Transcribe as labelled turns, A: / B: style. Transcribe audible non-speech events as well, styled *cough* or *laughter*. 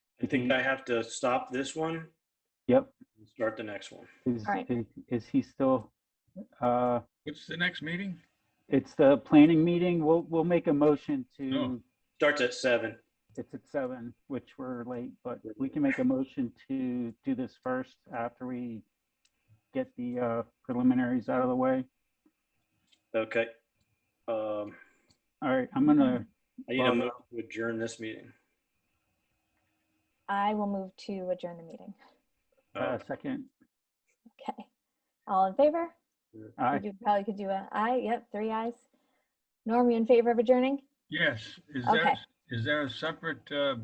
A: think I have to stop this one
B: Yep.
A: and start the next one.
B: Is,
C: All right.
B: is- is he still, uh,
D: What's the next meeting?
B: it's the planning meeting. We'll, we'll make a motion to,
D: No.
A: Starts at seven.
B: it's at seven, which we're late, but we can make a motion to do this first after we get the uh, preliminaries out of the way.
A: Okay. Um,
B: All right, I'm gonna,
A: I need a
B: Um,
A: motion to adjourn this meeting.
C: I will move to adjourn the meeting. *laughs*
B: uh,
A: Uh,
B: second,
C: Okay. All in favor?
B: I,
C: You probably could do a aye. Yep, three ayes. Norm, you in favor of adjourning?
D: Yes, is
C: Okay.
D: there, is there a separate, uh,